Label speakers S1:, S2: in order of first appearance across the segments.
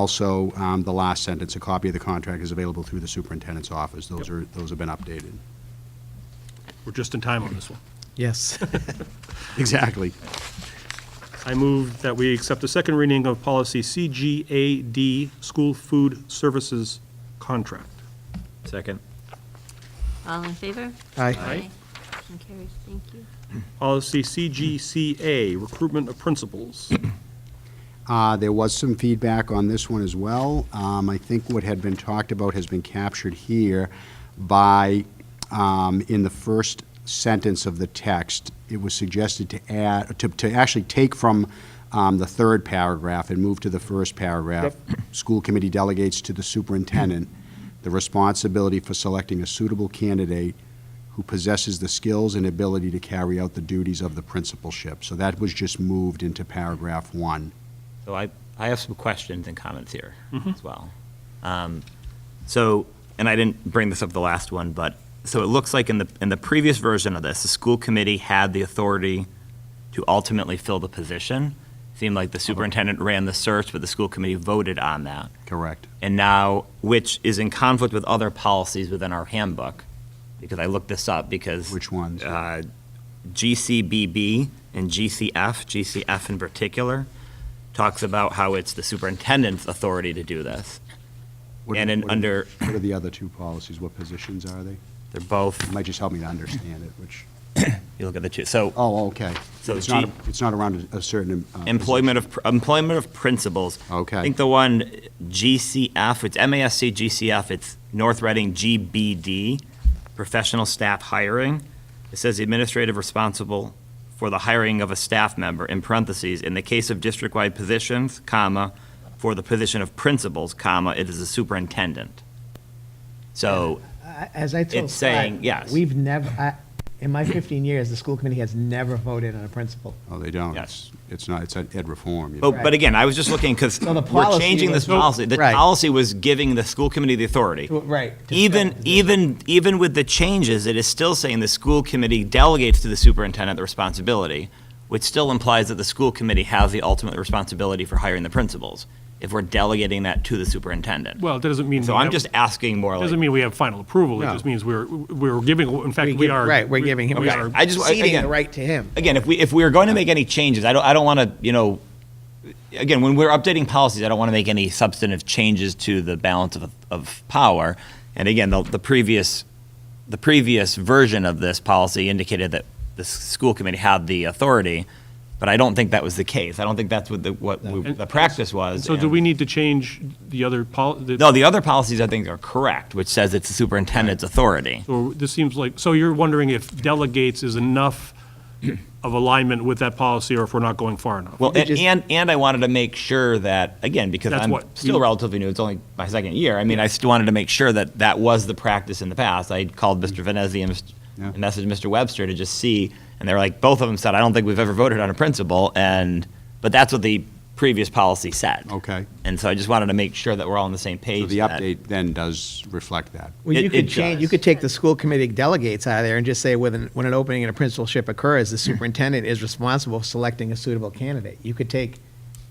S1: Also, um, the last sentence, a copy of the contract is available through the superintendent's office. Those are, those have been updated.
S2: We're just in time on this one.
S3: Yes.
S1: Exactly.
S2: I move that we accept the second reading of policy CGAD, school food services contract.
S4: Second.
S5: All in favor?
S3: Aye.
S2: Aye.
S5: Motion carries, thank you.
S2: Policy CGCA, recruitment of principals.
S1: Uh, There was some feedback on this one as well. Um, I think what had been talked about has been captured here by, um, in the first sentence of the text, it was suggested to add, to, to actually take from um, the third paragraph and move to the first paragraph. School committee delegates to the superintendent the responsibility for selecting a suitable candidate who possesses the skills and ability to carry out the duties of the principalship. So that was just moved into paragraph one.
S4: So I, I have some questions and comments here as well. Um, So, and I didn't bring this up the last one, but, so it looks like in the, in the previous version of this, the school committee had the authority to ultimately fill the position. Seemed like the superintendent ran the search, but the school committee voted on that.
S1: Correct.
S4: and now, which is in conflict with other policies within our handbook, because I looked this up because.
S1: Which ones?
S4: Uh, GCBB and GCF, GCF in particular, talks about how it's the superintendent's authority to do this.
S1: What-
S4: And in
S1: what are-
S4: under-
S1: What are the other two policies? What positions are they?
S4: They're both,
S1: It might just help me to understand it, which,
S4: you look at the two, so
S1: oh, okay.
S4: So
S1: It's not,
S4: G-
S1: it's not around a a certain. uh,
S4: employment of, employment of principals.
S1: Okay.
S4: I think the one GCF, it's MASC GCF, it's North Reading GBD, professional staff hiring. It says the administrative responsible for the hiring of a staff member, in parentheses, in the case of district-wide positions, comma, for the position of principals, comma, it is the superintendent. So,
S3: As I told
S4: It's saying
S3: Scott,
S4: yes.
S3: We've never, I- in my 15 years, the school committee has never voted on a principal.
S1: Oh, they don't.
S4: Yes.
S1: It's it's not, it's ed reform. you
S4: but,
S1: know.
S4: but again, I was just looking, because
S3: So the
S4: we're
S3: policy
S4: changing this
S3: was- Nope.
S4: policy. The
S3: Right.
S4: policy was giving the school committee the authority.
S3: To- Right. to fill the
S4: Even,
S3: position.
S4: even, even with the changes, it is still saying the school committee delegates to the superintendent the responsibility, which still implies that the school committee has the ultimate responsibility for hiring the principals, if we're delegating that to the superintendent.
S2: Well, that doesn't mean.
S4: So
S2: we
S4: I'm
S2: have-
S4: just asking more like.
S2: Doesn't mean we have final approval. It
S3: No.
S2: just means we're, we're giving, in
S3: We
S2: fact, we
S3: give-
S2: are.
S3: Right, we're giving him,
S2: we
S4: Okay.
S2: are-
S4: I just-
S3: ceding the
S4: again-
S3: right to him.
S4: Again, if we, if we are going to make any changes, I don't, I don't want to, you know, again, when we're updating policies, I don't want to make any substantive changes to the balance of, of power. And again, the, the previous, the previous version of this policy indicated that the s- school committee had the authority, but I don't think that was the case. I don't think that's what the, what we-
S2: And-
S4: the practice was.
S2: So do
S4: and-
S2: we need to change the other pol?
S4: No, the other policies I think are correct, which says it's the superintendent's authority.
S2: Or this seems like, so you're wondering if delegates is enough of alignment with that policy or if we're not going far enough?
S4: Well,
S3: We
S4: and,
S3: just-
S4: and and I wanted to make sure that again because
S2: That's
S4: I'm
S2: what
S4: still
S2: you-
S4: relatively new. It's only my second year. I mean, I still wanted to make sure that that was the practice in the past. I called Mr. Venezzi and, Mr.
S1: Yeah.
S4: and messaged Mr. Webster to just see, and they were like, both of them said, I don't think we've ever voted on a principle, and but that's what the previous policy said.
S1: Okay.
S4: And so I just wanted to make sure that we're all on the same page.
S1: So the
S4: that-
S1: update then does reflect that.
S3: Well, you
S4: It- it
S3: could change, you
S4: does.
S3: could take the school committee delegates out of there and just say, when, an- when an opening in a principalship occurs, the superintendent is responsible for selecting a suitable candidate. You could take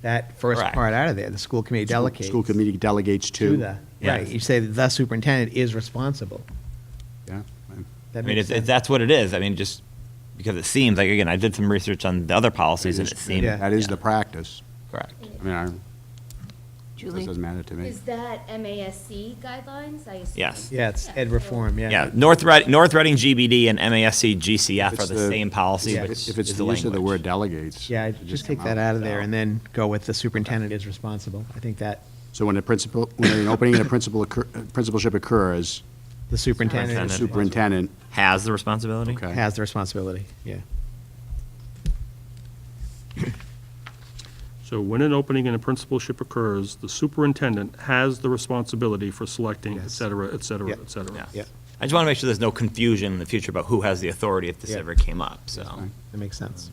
S3: that first
S4: Correct.
S3: part out of there, the school committee delegates.
S1: School committee delegates
S3: To
S1: to.
S3: the,
S4: Yes.
S3: right, you say the superintendent is responsible.
S1: Yeah.
S3: That
S4: I mean,
S3: makes
S4: if, if
S3: sense.
S4: that's what it is, I mean, just because it seems like again, I did some research on the other policies, and it seemed
S3: Yeah.
S1: That is the practice.
S4: correct.
S1: I mean, I- this
S5: Julie?
S1: doesn't matter to me.
S6: Is that MASC guidelines? I assume?
S4: Yes.
S3: Yeah, it's ed reform, yeah.
S4: Yeah, North Reading, North Reading GBD and MASC GCF
S1: If
S4: are
S1: it's
S4: the same policy,
S3: yeah.
S4: which
S1: If it's
S4: is
S1: the use of the word
S4: language.
S1: delegates.
S3: Yeah,
S1: it
S3: I'd
S1: should
S3: just take
S1: come
S3: that out of there and then go with the superintendent is responsible. I think that
S1: So when a principal, when an opening in a principal, occur- uh, principalship occurs,
S3: the superintendent
S1: the
S3: is
S1: superintendent
S4: Has the responsibility?
S1: Okay.
S3: has the responsibility, yeah.
S2: So when an opening in a principalship occurs, the superintendent has the responsibility for selecting, et
S3: Yes.
S2: cetera, et cetera,
S3: Yeah.
S2: et cetera.
S4: Yeah. I just want to make sure there's no confusion in the future about who has the authority if this
S3: Yeah.
S4: ever came up, so,
S1: fine.
S3: That makes sense.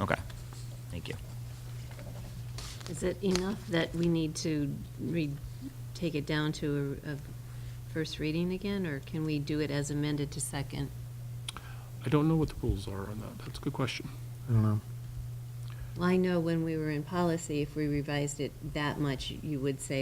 S4: okay, thank you.
S5: Is it enough that we need to read, take it down to a, a first reading again, or can we do it as amended to second?
S2: I don't know what the rules are on that. That's a good question.
S3: I don't know.
S5: Well, I know when we were in policy, if we revised it that much, you would say